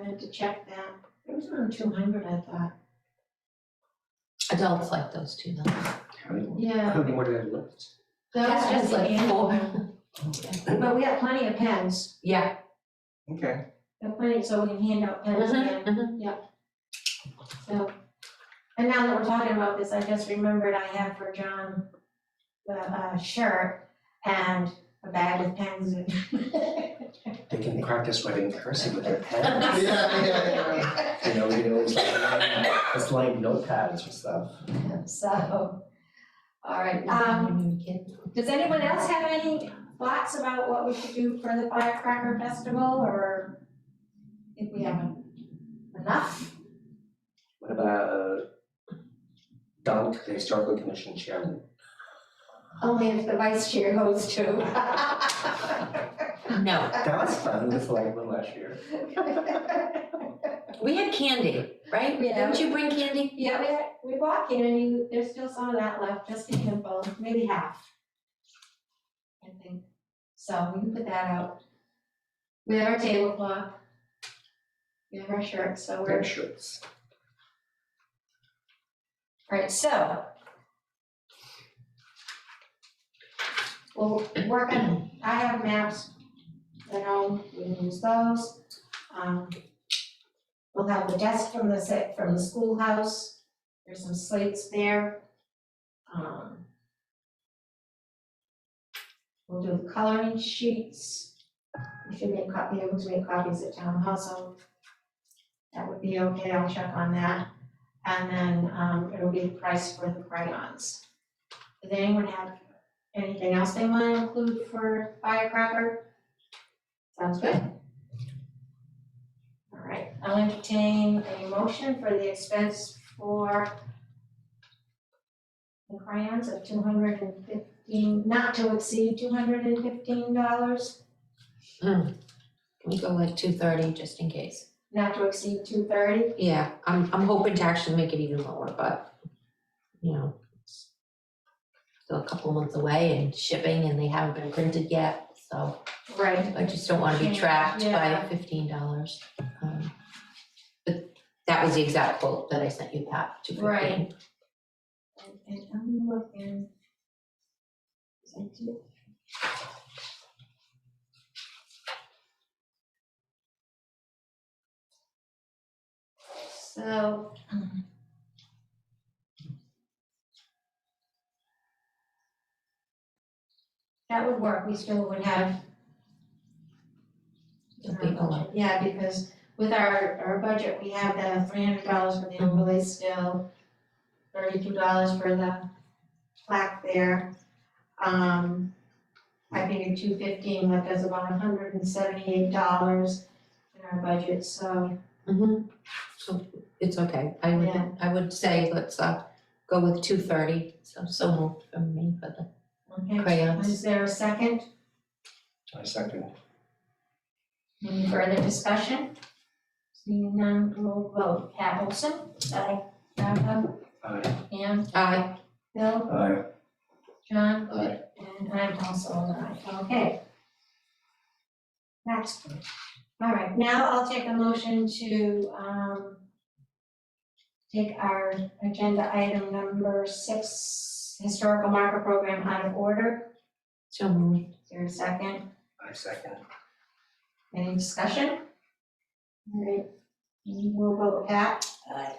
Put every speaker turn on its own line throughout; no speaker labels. wanted to check that. It was around two hundred, I thought.
Adults like those too, though.
Yeah.
What did I look?
That's just the
like four.
annual, but we have plenty of pens.
Yeah.
Okay,
We have plenty, so we can hand out pens again.
Mm-hmm,
So, and now that we're talking about this, I just remembered I have for John the uh, shirt and a bag of pens and.
they can practice writing cursive with their pen.
Yeah, yeah, yeah. You know, we can always like, it's like notepads and stuff.
So, all right, um, does anyone else have any thoughts about what we should do for the firecracker festival or if we have enough?
What about Don, the historical commission chairman?
Only if the vice chair goes too.
No,
That was fun, this like one last year.
we had candy, right?
Yeah.
Didn't you bring candy?
Yeah, we, we bought candy, there's still some of that left, just a handful, maybe half. I think, so we can put that out. We have our tablecloth. We have our shirts, so
Their
we're,
shirts.
alright, so. We'll work on, I have maps at home, we can use those. Um, We'll have the desk from the set, from the schoolhouse, there's some slates there. Um, We'll do the coloring sheets. We should make copy, able to make copies at town hall, so that would be okay, I'll check on that. And then, um, it'll be the price for the crayons. Does anyone have anything else they want to include for firecracker? Sounds good. All right, I'll entertain a motion for the expense for the crayons of two hundred and fifteen, not to exceed two hundred and fifteen dollars,
Can we go like two thirty, just in case?
not to exceed two thirty.
Yeah, I'm, I'm hoping to actually make it even lower, but, you know, it's still a couple months away and shipping and they haven't been printed yet, so
Right.
I just don't wanna be trapped by
Yeah.
fifteen dollars. Um, But that was the exact quote that I sent you, Pat, two fifteen.
Right. And- And I'm looking. Is that it? So. That would work, we still would have.
It'll be a lot.
Yeah, because with our, our budget, we have the three hundred dollars for the overlay still, thirty-two dollars for the plaque there. Um, I figured two fifteen, left us about hundred and seventy-eight dollars in our budget, so,
Mm-hmm, so it's okay, I would,
Yeah.
I would say let's uh go with two thirty, so so moved from me for the
okay.
crayons.
Is there a second?
I second.
Any further discussion? Seeing none, roll vote. Pat Olson? Aye. Martha?
Aye.
Ann?
Aye,
Bill?
Aye.
John?
Aye.
And I'm also an aye, okay. That's good. All right, now I'll take a motion to, um, take our agenda item number six, historical marker program out of order.
so moved.
Is there a second?
I second.
Any discussion? All right, we'll vote Pat,
Aye.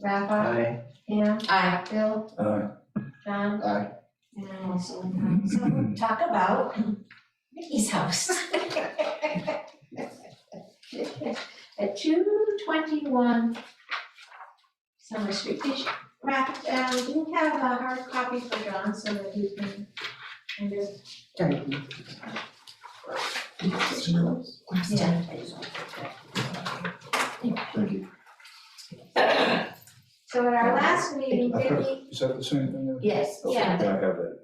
Rafa,
Aye.
Pam,
Aye,
Bill,
Aye.
John,
Aye.
and I'm also an aye. So talk about Mickey's house. At two twenty-one Summer Street, did you, Raf, um, do you have a hard copy for John so that he can kind of,
last
Yeah.
time.
Thank you.
so at our last meeting, Vicky,
Is that the same thing?
Yes,
Okay,
Yeah.
I have that.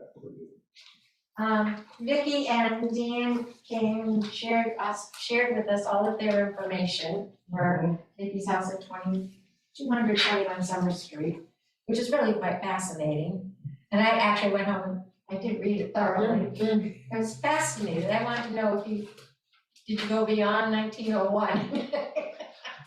um, Vicky and Dan came, shared us, shared with us all of their information for Vicky's house at twenty, two hundred twenty-one Summer Street, which is really quite fascinating. And I actually went home and I did read it thoroughly.
Mm,
I was fascinated, I wanted to know if you, did you go beyond nineteen oh one?